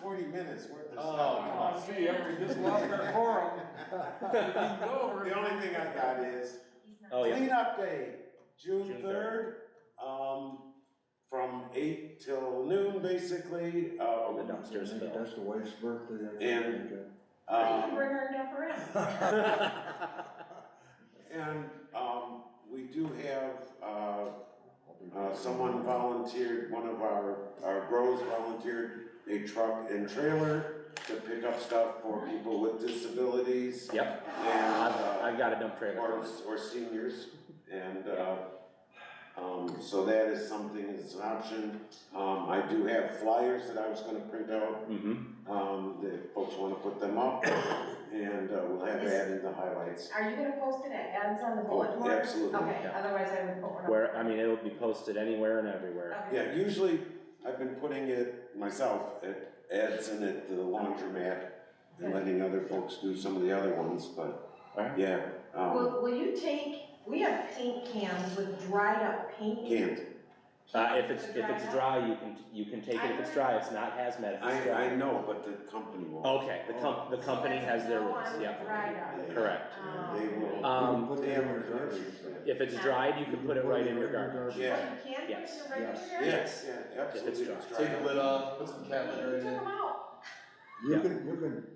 forty minutes worth of Oh, stuff. come on, see, we just lost our forum. We can go over. The only thing I got is Oh, yeah. cleanup day, June June third, um, from eight till noon, basically, Oh, the um, dumpsters fell. That's the wife's birthday. And- You can um, bring her dumper in. and, um, we do have, uh, Uh, someone volunteered, one of our, our grows volunteered a truck and trailer to pick up stuff for people with disabilities Yep, and, I've, uh, I've got a dump trailer. or, or seniors. And, uh, um, so that is something, it's an option. Um, I do have flyers that I was gonna print out, Mm-hmm, um, that folks wanna put them up. And, uh, we'll have that in the highlights. Are you gonna post it at Ed's on the Oh, bulletin board? absolutely. Okay, Yeah. otherwise I would put one up. where, I mean, it'll be posted anywhere and everywhere. Okay. Yeah, usually I've been putting it myself at Edson at the laundromat and letting other folks do some of the other ones, but Alright. yeah, um, Will, will you take, we have paint cans with dried up paint. can't. Uh, if it's, if it's Dried up? dry, you can, you can take it if it's dry, it's not hazmat if it's I, I dry. know, but the company won't. Okay, the com, the company has their rules, So that's yeah, no one with dried up. They- correct. They will. Um, Put the hammer in there. If it's dried, you can put it right in your garden. Yeah. Oh, you can bring Yes. the regular? Yes. dried? Yes, yeah, absolutely. dry. it's Take the dry. lid off, put some cat You litter took in it. them out. You Yeah. can, you can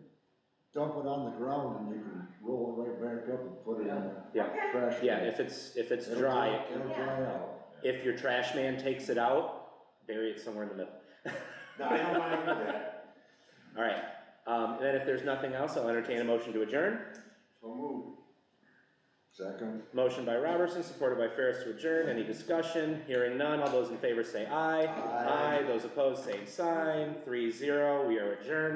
dump it on the ground and you can roll it right back up and put it in Yeah. the Okay. trash. Yeah, can. if it's, if it's It'll dry, dry- It'll Yeah. dry out. if your trash man takes it out, bury it somewhere in the middle. No, I don't mind that. Alright, um, and then if there's nothing else, I'll entertain a motion to adjourn. So move. Second. Motion by Robertson, supported by Ferris to adjourn. Any discussion? Hearing none. All those in favor say aye. Aye. Those opposed, same sign. Three zero. We are adjourned.